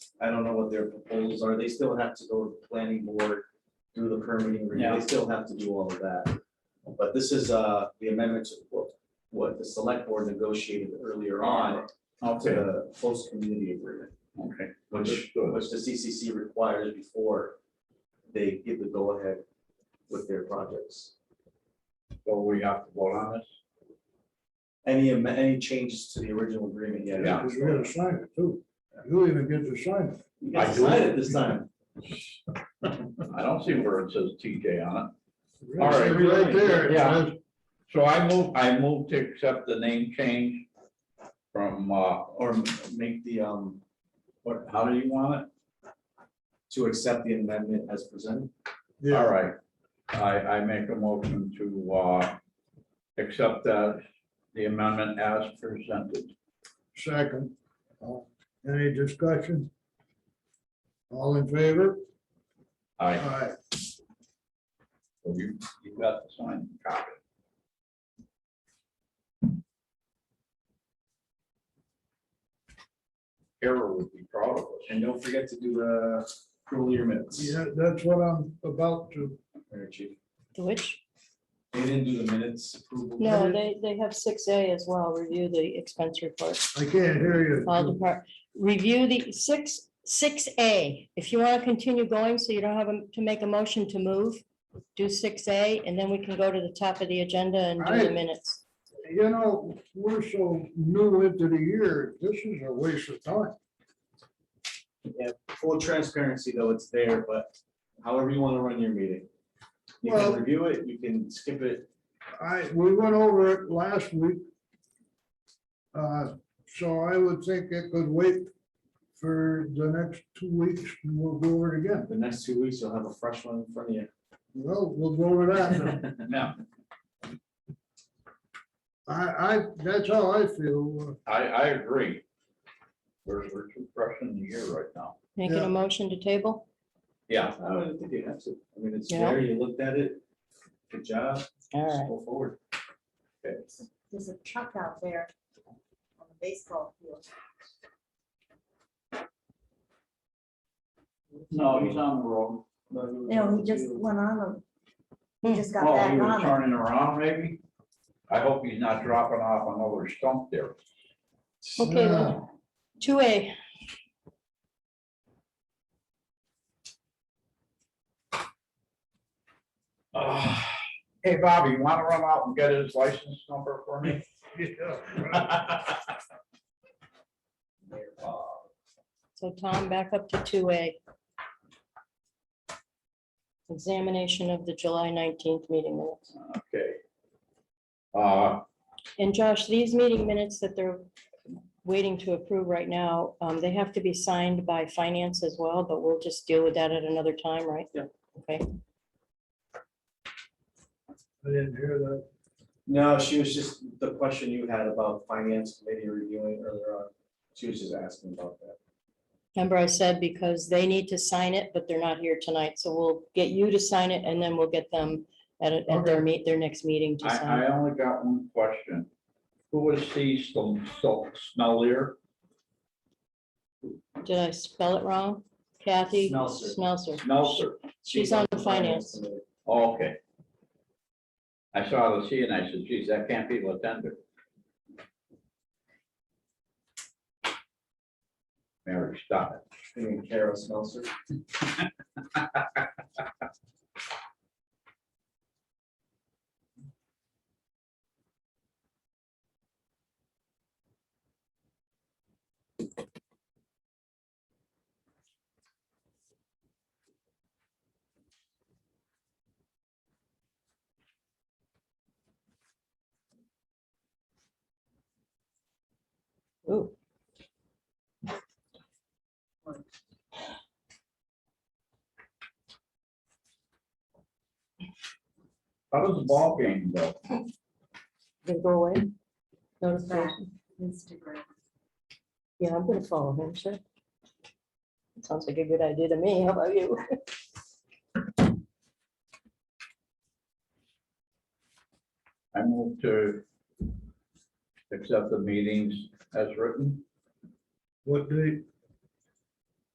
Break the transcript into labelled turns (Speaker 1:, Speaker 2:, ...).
Speaker 1: I don't know what their proposals are. They still have to go to the planning board, do the permitting, review.
Speaker 2: Yeah.
Speaker 1: they still have to do all of that. But this is uh, the amendment to what, what the select board negotiated earlier on to
Speaker 2: Okay,
Speaker 1: the host community agreement,
Speaker 2: okay,
Speaker 1: which, which the CCC requires before they give the go-ahead with their projects.
Speaker 3: So we have to vote on this?
Speaker 1: Any, am- any changes to the original agreement yet?
Speaker 3: Yeah.
Speaker 4: Because we gotta sign it too. You even get to sign it.
Speaker 1: You guys
Speaker 3: I do.
Speaker 1: decided this time.
Speaker 3: I don't see where it says TJ on it.
Speaker 4: It's
Speaker 3: All right.
Speaker 4: Right there. it
Speaker 3: Yeah.
Speaker 4: says,
Speaker 3: So I move, I move to accept the name change from, uh,
Speaker 1: Or make the, um,
Speaker 3: what, how do you want
Speaker 1: to accept the amendment as presented.
Speaker 3: it? All
Speaker 4: Yeah,
Speaker 3: right. I, I make a motion to, uh, accept that, the amendment as presented.
Speaker 4: second. Uh, Any discussion? All in favor?
Speaker 3: I,
Speaker 4: Aye.
Speaker 3: you, you got the sign. copy. Kara would be proud of us.
Speaker 1: And don't forget to do the approval of your minutes.
Speaker 4: Yeah, that's what I'm about to,
Speaker 1: Mayor Chief.
Speaker 5: Which,
Speaker 1: They didn't do the minutes approval.
Speaker 5: no, they, they have six A as well, review the expense report,
Speaker 4: I can't hear
Speaker 5: all
Speaker 4: you.
Speaker 5: depart, review the six, six A. If you want to continue going, so you don't have a- to make a motion to move, do six A, and then we can go to the top of the agenda and do the
Speaker 4: Alright.
Speaker 5: minutes.
Speaker 4: You know, we're so new into the year, this is a waste of time.
Speaker 1: Full transparency, though, it's there, but however you want to run your meeting. You can
Speaker 4: Well-
Speaker 1: review it, you can skip it.
Speaker 4: I, we went over it last week. Uh, So I would think it could wait for the next two weeks and we'll go over it again.
Speaker 1: The next two weeks, you'll have a fresh one in front of you.
Speaker 4: Well, we'll go over that. now.
Speaker 3: Now,
Speaker 4: I, I, that's how I feel.
Speaker 3: I, I agree. We're, we're too fresh in the year right now.
Speaker 5: Making
Speaker 4: Yeah.
Speaker 5: a motion to table?
Speaker 3: Yeah.
Speaker 1: I don't think you have to. I mean, it's
Speaker 5: Yeah.
Speaker 1: there, you looked at it. Good job, just
Speaker 5: All
Speaker 1: go forward.
Speaker 6: There's a truck out there on the baseball field.
Speaker 2: no, he's on the road.
Speaker 6: No, he just went on the, he just got
Speaker 2: Oh,
Speaker 6: back
Speaker 2: he was
Speaker 6: on it.
Speaker 2: turning around maybe?
Speaker 3: I hope he's not dropping off another stump there.
Speaker 5: right, okay,
Speaker 4: Yeah.
Speaker 5: then. two A,
Speaker 3: Ah, Hey, Bobby, you wanna run out and get his license number for me?
Speaker 5: so Tom, back up to two A. Examination of the July nineteenth meeting minutes.
Speaker 3: Okay. Uh,
Speaker 5: And Josh, these meeting minutes that they're waiting to approve right now, um, they have to be signed by finance as well, but we'll just deal with that at another time, right?
Speaker 1: Yeah.
Speaker 5: Okay,
Speaker 4: Uh, I didn't hear that.
Speaker 1: No, she was just, the question you had about finance committee reviewing earlier on, she was just asking about that.
Speaker 5: remember I said because they need to sign it, but they're not here tonight, so we'll get you to sign it and then we'll get them at, a- at their meet, their next meeting to
Speaker 3: I,
Speaker 5: sign.
Speaker 3: I only got one question. Who is he, some, some smellier?
Speaker 5: Did I spell it wrong? Kathy?
Speaker 1: Smelser.
Speaker 5: Smelser.
Speaker 3: Meltzer?
Speaker 5: She's on the finance.
Speaker 1: committee.
Speaker 3: Oh, Okay. I saw the C and I said, geez, that can't be Latender. Mary, stop it.
Speaker 1: You mean Kara Smelser?
Speaker 5: Ooh.
Speaker 3: How does the ball game go?
Speaker 5: They go away? Notification.
Speaker 6: Back Instagram.
Speaker 5: Yeah, I'm gonna follow him, sure. Sounds like a good idea to me. How about you?
Speaker 3: I move to accept the meetings as written,
Speaker 4: What date?